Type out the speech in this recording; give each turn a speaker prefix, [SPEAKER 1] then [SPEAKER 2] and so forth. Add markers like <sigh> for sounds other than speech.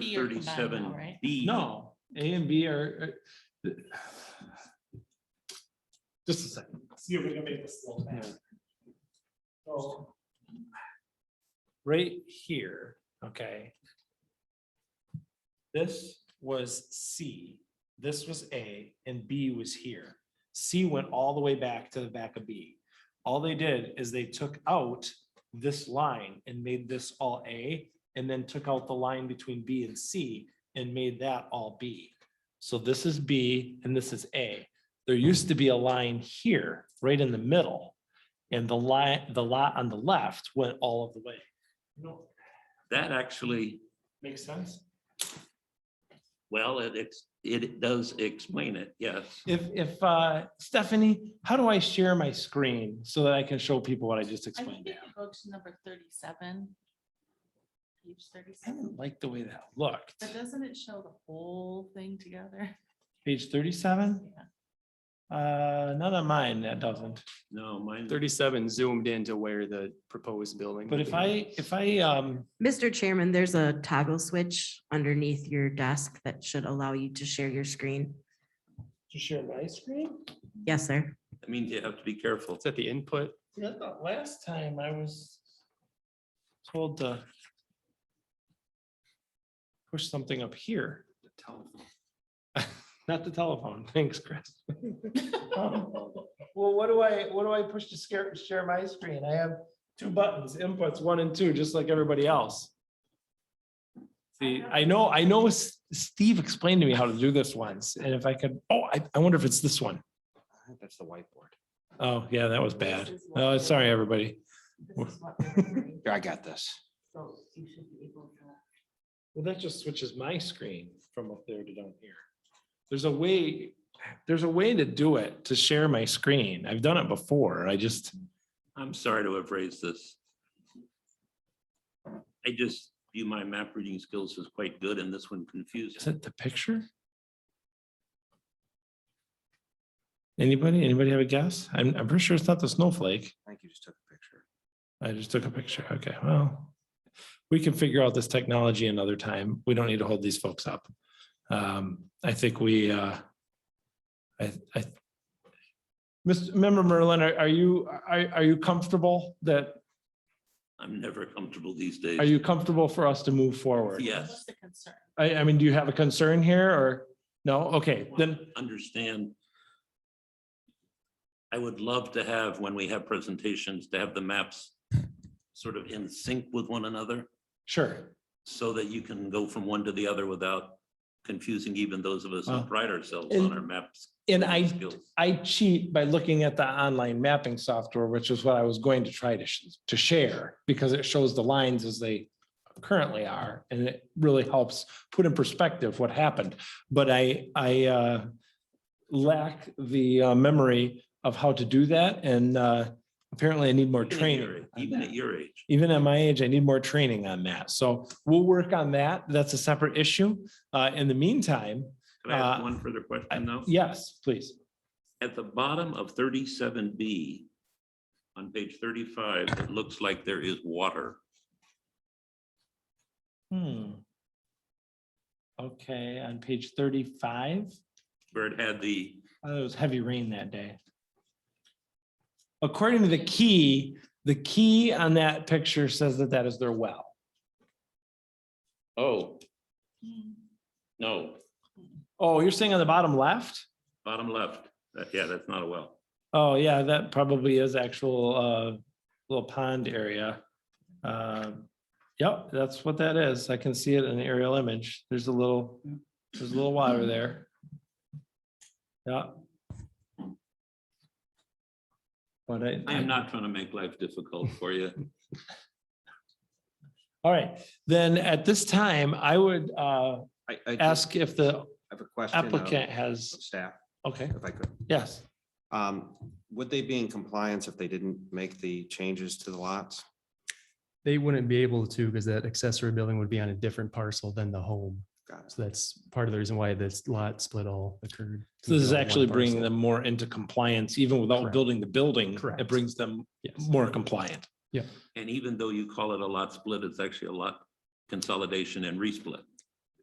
[SPEAKER 1] B are combined now,
[SPEAKER 2] thirty-seven
[SPEAKER 1] right?
[SPEAKER 2] B.
[SPEAKER 3] No, A and B are. are- Just a second.
[SPEAKER 4] See if we can make this a little faster. So,
[SPEAKER 3] Right here,
[SPEAKER 4] okay. This was C, this was A, and B was here. C went all the way back to the back of B. All they did is they took out this line and made this all A, and then took out the line between B and C and made that all B. So this is B and this is A. There used to be a line here, right in the middle. And the line, the lot on the left went all of the way. No,
[SPEAKER 2] That actually,
[SPEAKER 4] makes sense.
[SPEAKER 2] well, it, ex- it does explain it, yes.
[SPEAKER 4] If, if, uh, Stephanie, how do I share my screen so that I can show people what I just
[SPEAKER 1] I think
[SPEAKER 4] explained?
[SPEAKER 1] if you go to number thirty-seven. Page
[SPEAKER 4] I
[SPEAKER 1] thirty-seven,
[SPEAKER 4] didn't like the way that
[SPEAKER 1] but
[SPEAKER 4] looked.
[SPEAKER 1] doesn't it show the whole thing together?
[SPEAKER 4] Page thirty-seven?
[SPEAKER 1] Yeah.
[SPEAKER 4] Uh, none of mine, that doesn't.
[SPEAKER 2] No, mine.
[SPEAKER 5] Thirty-seven zoomed into where the proposed building.
[SPEAKER 4] But
[SPEAKER 5] would
[SPEAKER 4] if
[SPEAKER 5] be.
[SPEAKER 4] I, if I, um,
[SPEAKER 6] Mr. Chairman, there's a toggle switch underneath your desk that should allow you to share your screen.
[SPEAKER 4] to share my screen?
[SPEAKER 6] Yes, sir.
[SPEAKER 2] That means you have to be careful.
[SPEAKER 5] It's at the input.
[SPEAKER 4] See, I thought last time I was told to push something up here. <laughs> Not the telephone.
[SPEAKER 1] <laughs>
[SPEAKER 4] Thanks, Chris. Um, Well, what do I, what do I push to scare, share my screen? I have two buttons, inputs one and two, just like everybody else. See, I know, I know S- Steve explained to me how to do this once, and if I could, oh, I, I wonder if it's this one.
[SPEAKER 5] That's the whiteboard.
[SPEAKER 4] Oh, yeah, that was
[SPEAKER 1] This
[SPEAKER 4] bad.
[SPEAKER 1] is what
[SPEAKER 4] Oh,
[SPEAKER 1] we're-
[SPEAKER 4] sorry, everybody.
[SPEAKER 1] This is what we're doing,
[SPEAKER 5] <laughs> I got this.
[SPEAKER 1] So you should be able to.
[SPEAKER 4] Well, that just switches my screen from up there to down here. There's a way, there's a way to do it, to share my screen. I've done it before. I just,
[SPEAKER 2] I'm sorry to have raised this. I just view my map reading skills as quite good and this one confused.
[SPEAKER 4] is it the picture? Anybody, anybody have a guess? I'm, I'm pretty sure it's not the snowflake.
[SPEAKER 5] I think you just took a picture.
[SPEAKER 4] I just took a picture. Okay, well, we can figure out this technology another time. We don't need to hold these folks up. Um, I think we, uh, I, I, Mr. Member Merlin, are, are you, are, are you comfortable that,
[SPEAKER 2] I'm never comfortable these days.
[SPEAKER 4] are you comfortable for us to move forward?
[SPEAKER 2] Yes.
[SPEAKER 1] What's the concern?
[SPEAKER 4] I, I mean, do you have a concern here or, no? Okay, then,
[SPEAKER 2] Understand. I would love to have, when we have presentations, to have the maps sort of in sync with one another
[SPEAKER 4] sure.
[SPEAKER 2] so that you can go from one to the other without confusing even those of us who
[SPEAKER 4] Well,
[SPEAKER 2] pride ourselves on
[SPEAKER 4] and-
[SPEAKER 2] our maps.
[SPEAKER 4] And
[SPEAKER 2] reading
[SPEAKER 4] I,
[SPEAKER 2] skills.
[SPEAKER 4] I cheat by looking at the online mapping software, which is what I was going to try to, sh- to share because it shows the lines as they currently are. And it really helps put in perspective what happened. But I, I uh, lack the uh, memory of how to do that. And uh, apparently I need more
[SPEAKER 2] Even at your
[SPEAKER 4] training.
[SPEAKER 2] age-
[SPEAKER 4] on
[SPEAKER 2] Even
[SPEAKER 4] that.
[SPEAKER 2] at your age.
[SPEAKER 4] Even at my age, I need more training on that. So we'll work on that. That's a separate issue. Uh, In the meantime,
[SPEAKER 2] Can I ask
[SPEAKER 4] Uh,
[SPEAKER 2] one further question though?
[SPEAKER 4] yes, please.
[SPEAKER 2] At the bottom of thirty-seven B, on page thirty-five, it looks like there is water.
[SPEAKER 4] Hmm. Okay, on page thirty-five,
[SPEAKER 2] where it had the,
[SPEAKER 4] oh, it was heavy rain that day. According to the key, the key on that picture says that that is their well.
[SPEAKER 2] oh,
[SPEAKER 1] Hmm.
[SPEAKER 2] no,
[SPEAKER 4] Oh, you're saying on the bottom left?
[SPEAKER 2] bottom left. That- Yeah, that's not a well.
[SPEAKER 4] Oh, yeah, that probably is actual, uh, little pond area. Um, Yep, that's what that is. I can see it in the aerial image. There's a little, there's a little water there. Yeah. But I.
[SPEAKER 2] I am not trying to make life difficult for you.
[SPEAKER 4] <laughs> All right, then at this time, I would, uh,
[SPEAKER 7] I, I just
[SPEAKER 4] ask if the
[SPEAKER 7] have a question. um, of-
[SPEAKER 4] applicant
[SPEAKER 7] of
[SPEAKER 4] has,
[SPEAKER 7] Staff,
[SPEAKER 4] okay,
[SPEAKER 7] if I could.
[SPEAKER 4] yes.
[SPEAKER 7] Um, would they be in compliance if they didn't make the changes to the lots?
[SPEAKER 5] They wouldn't be able to because that accessory building would be on a different parcel than the home.
[SPEAKER 7] Got it.
[SPEAKER 5] So that's part of the reason why this lot split all occurred.
[SPEAKER 4] So this is
[SPEAKER 5] All one
[SPEAKER 4] actually bringing
[SPEAKER 5] parcel.
[SPEAKER 4] them more into compliance, even without
[SPEAKER 5] Correct.
[SPEAKER 4] building the building. It
[SPEAKER 5] Correct.
[SPEAKER 4] brings them
[SPEAKER 5] Yes.
[SPEAKER 4] more compliant.
[SPEAKER 2] And even though you call it a lot split, it's actually a lot consolidation and resplit.